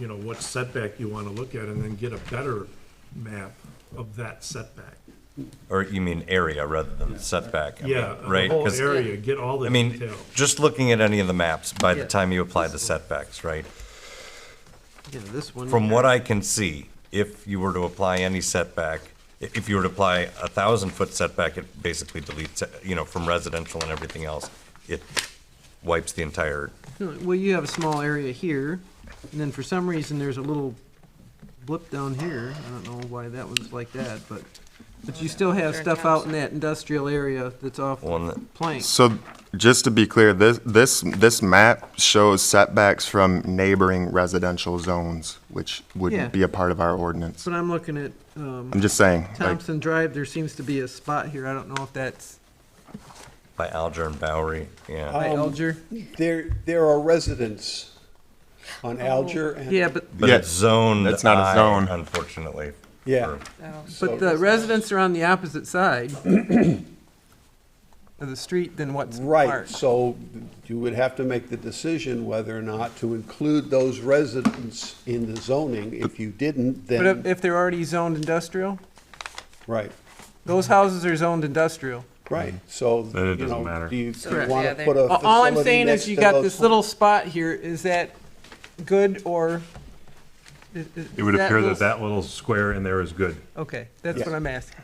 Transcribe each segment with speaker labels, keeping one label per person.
Speaker 1: you know, what setback you wanna look at, and then get a better map of that setback.
Speaker 2: Or you mean area rather than setback? I mean,
Speaker 1: Yeah, the
Speaker 2: Right?
Speaker 1: whole
Speaker 2: 'cause,
Speaker 1: area, get all the
Speaker 2: I mean,
Speaker 1: detail.
Speaker 2: just looking at any of the maps, by the
Speaker 3: Yeah.
Speaker 2: time you apply the setbacks, right?
Speaker 3: Yeah, this one.
Speaker 2: From
Speaker 3: here.
Speaker 2: what I can see, if you were to apply any setback, i- if you were to apply a thousand-foot setback, it basically deletes, it, you know, from residential and everything else, it wipes the entire,
Speaker 3: No, Well, you have a small area here, and then for some reason, there's a little blip down here. I don't know why that was like that, but, but you still have stuff out in that industrial area that's off
Speaker 2: Well, and the-
Speaker 3: plank.
Speaker 4: So just to be clear, this, this, this map shows setbacks from neighboring residential zones, which
Speaker 3: Yeah.
Speaker 4: would be a part of our ordinance.
Speaker 3: But I'm looking at, um,
Speaker 4: I'm just saying, like,
Speaker 3: Thompson Drive, there seems to be a spot here. I don't know if that's
Speaker 2: by Alger and Bowery, yeah.
Speaker 3: by
Speaker 5: Um,
Speaker 3: Alger.
Speaker 5: There, there are residents on Alger and.
Speaker 3: Yeah, but,
Speaker 2: But
Speaker 4: Yeah,
Speaker 2: it's zoned
Speaker 4: that's not a
Speaker 2: I,
Speaker 4: zone.
Speaker 2: Unfortunately.
Speaker 5: Yeah.
Speaker 2: for-
Speaker 5: so-
Speaker 3: but the residents are on the opposite side of the street than what's
Speaker 5: Right,
Speaker 3: marked.
Speaker 5: so you would have to make the decision whether or not to include those residents in the zoning. If you didn't,
Speaker 3: But if,
Speaker 5: then,
Speaker 3: if they're already zoned industrial,
Speaker 5: right,
Speaker 3: those houses are zoned industrial.
Speaker 5: right, so,
Speaker 6: Then it
Speaker 5: you
Speaker 6: doesn't
Speaker 5: know,
Speaker 6: matter.
Speaker 5: do you
Speaker 7: Correct.
Speaker 5: want
Speaker 7: Yeah,
Speaker 5: to
Speaker 7: they-
Speaker 5: put a
Speaker 3: A- All I'm
Speaker 5: facility
Speaker 3: saying
Speaker 5: next
Speaker 3: is you
Speaker 5: to
Speaker 3: got
Speaker 5: those
Speaker 3: this
Speaker 5: ho-
Speaker 3: little spot here, is that good or? is- is-
Speaker 6: It would
Speaker 3: is
Speaker 6: appear that
Speaker 3: little-
Speaker 6: that little square in there is good.
Speaker 3: Okay, that's
Speaker 5: Yeah.
Speaker 3: what I'm asking.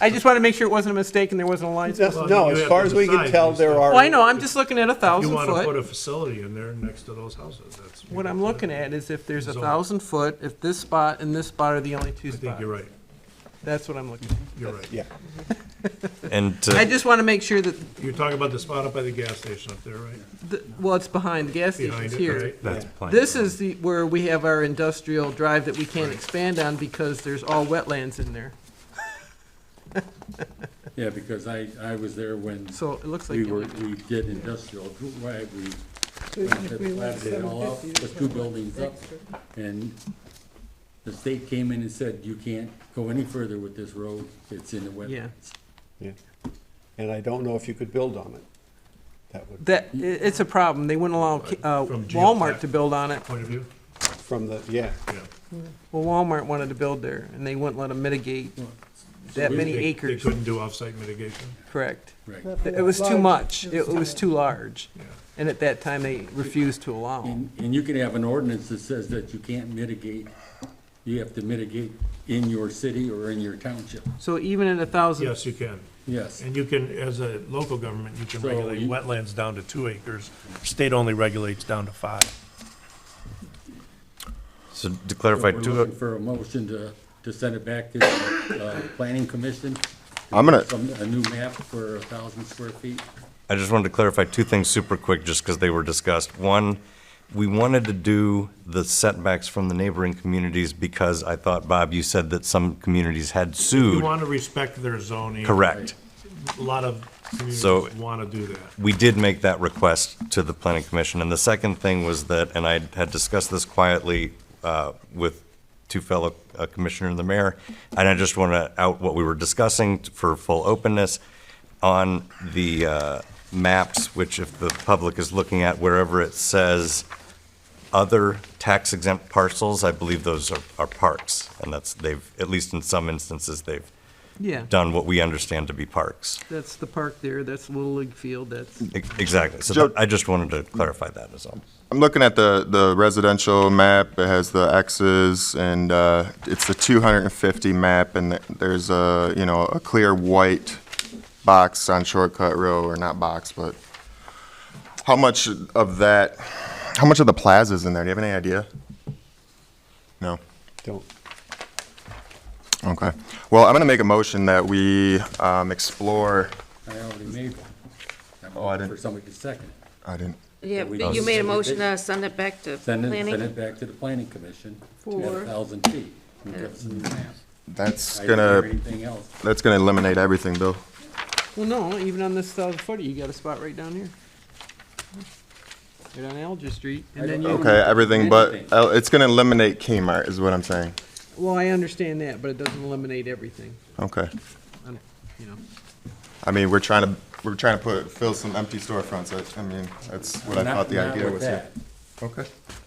Speaker 3: I just want to make sure it wasn't a mistake and there wasn't a line.
Speaker 5: That's-
Speaker 3: split.
Speaker 5: No,
Speaker 1: you
Speaker 5: as
Speaker 1: have
Speaker 5: far
Speaker 1: to
Speaker 5: as we can
Speaker 1: decide
Speaker 5: tell,
Speaker 1: these
Speaker 5: there
Speaker 1: things.
Speaker 5: are.
Speaker 3: Well, Oh, I know, I'm just looking at a
Speaker 1: You
Speaker 3: thousand
Speaker 1: wanna put a
Speaker 3: foot.
Speaker 1: facility in there next to those houses, that's.
Speaker 3: What I'm looking at is if there's a
Speaker 1: Zone.
Speaker 3: thousand foot, if this spot and this spot are the only two
Speaker 1: I think
Speaker 3: spots.
Speaker 1: you're right,
Speaker 3: That's what I'm looking at.
Speaker 1: you're right.
Speaker 5: Yeah,
Speaker 2: And
Speaker 3: I
Speaker 2: to,
Speaker 3: just want to make sure that,
Speaker 1: You're talking about the spot up by the gas station up there, right?
Speaker 3: the- well, it's behind the gas
Speaker 1: Behind
Speaker 3: station's
Speaker 1: it,
Speaker 3: here.
Speaker 1: right?
Speaker 6: That's plenty.
Speaker 3: This is the, where we have our industrial drive that we can't expand on because there's all wetlands in there.
Speaker 8: Yeah, because I, I was there when
Speaker 3: So it looks like.
Speaker 8: we
Speaker 3: you-
Speaker 8: were, we did industrial, right, we platted it all up, put two buildings up, and the state came in and said, you can't go any further with this road, it's in the
Speaker 3: Yeah.
Speaker 8: wetlands.
Speaker 5: yeah. And I don't know if you could build on it. That would,
Speaker 3: That, i- it's a problem. They wouldn't allow uh,
Speaker 1: From
Speaker 3: Walmart
Speaker 1: geotech.
Speaker 3: to build on it.
Speaker 1: Point of view,
Speaker 5: from the, yeah.
Speaker 1: yeah.
Speaker 3: Well, Walmart wanted to build there, and they wouldn't let them mitigate
Speaker 8: So
Speaker 3: that
Speaker 8: we-
Speaker 3: many
Speaker 1: They-
Speaker 3: acres,
Speaker 1: They couldn't do offsite mitigation,
Speaker 3: correct?
Speaker 8: Right,
Speaker 3: It was too much. It was too large. And at that time, they refused to allow 'em.
Speaker 8: and, and you can have an ordinance that says that you can't mitigate, you have to mitigate in your city or in your township,
Speaker 3: So even at a thousand,
Speaker 1: yes, you can.
Speaker 8: yes.
Speaker 1: And you can, as a local government, you can
Speaker 8: So
Speaker 1: regulate
Speaker 8: you-
Speaker 1: wetlands down to two acres. State only regulates down to five.
Speaker 2: so to
Speaker 8: So
Speaker 2: clarify,
Speaker 8: We're
Speaker 2: two-
Speaker 8: looking for a motion to, to send it back to the, uh, planning commission.
Speaker 4: I'm gonna-
Speaker 8: Some, a new map for a thousand square feet.
Speaker 2: I just wanted to clarify two things super quick, just because they were discussed. One, we wanted to do the setbacks from the neighboring communities because I thought, Bob, you said that some communities had
Speaker 1: You
Speaker 2: sued.
Speaker 1: want to respect their zoning.
Speaker 2: Correct.
Speaker 1: A lot of communities
Speaker 2: So-
Speaker 1: want to do that.
Speaker 2: We did make that request to the planning commission. And the second thing was that, and I had discussed this quietly uh, with two fellow uh, commissioner and the mayor, and I just want to out what we were discussing for full openness on the uh, maps, which if the public is looking at wherever it says other tax exempt parcels, I believe those are are parks. And that's, they've, at least in some instances, they've
Speaker 3: yeah,
Speaker 2: done what we understand to be parks.
Speaker 3: that's the park there, that's Little League Field, that's,
Speaker 2: E- Exactly. So
Speaker 4: Joe-
Speaker 2: that- I just wanted to clarify that as all.
Speaker 4: I'm looking at the, the residential map, it has the X's and, uh, it's the two hundred and fifty map and th- there's a, you know, a clear white box on Shortcut Row, or not box, but how much of that, how much of the plaza's in there? Do you have any idea? No?
Speaker 5: Don't,
Speaker 4: Okay. Well, I'm gonna make a motion that we, um, explore,
Speaker 8: I already made one. I'm
Speaker 4: Oh, I
Speaker 8: looking For
Speaker 4: didn't-
Speaker 8: somebody to second. it.
Speaker 4: I didn't,
Speaker 7: Yeah,
Speaker 8: we
Speaker 7: but you
Speaker 8: don't-
Speaker 7: made a motion to send it back to
Speaker 8: Send it, send
Speaker 7: planning.
Speaker 8: it back to the planning commission at
Speaker 7: For-
Speaker 8: a thousand feet. and give us a new map.
Speaker 4: that's
Speaker 8: I didn't hear
Speaker 4: gonna,
Speaker 8: Anything else?
Speaker 4: that's gonna eliminate everything, Bill.
Speaker 3: well, no, even on this thousand footer, you got a spot right down here. Right on Alger Street, and then you.
Speaker 4: Okay, everything but,
Speaker 8: Anything.
Speaker 4: oh, it's gonna eliminate Kmart is what I'm saying.
Speaker 3: Well, I understand that, but it doesn't eliminate everything,
Speaker 4: Okay.
Speaker 3: um, you know.
Speaker 4: I mean, we're trying to, we're trying to put, fill some empty storefronts. I, I mean, that's what I
Speaker 8: Not-
Speaker 4: thought the
Speaker 8: not
Speaker 4: idea
Speaker 8: with
Speaker 4: was here.
Speaker 8: that.
Speaker 4: Okay.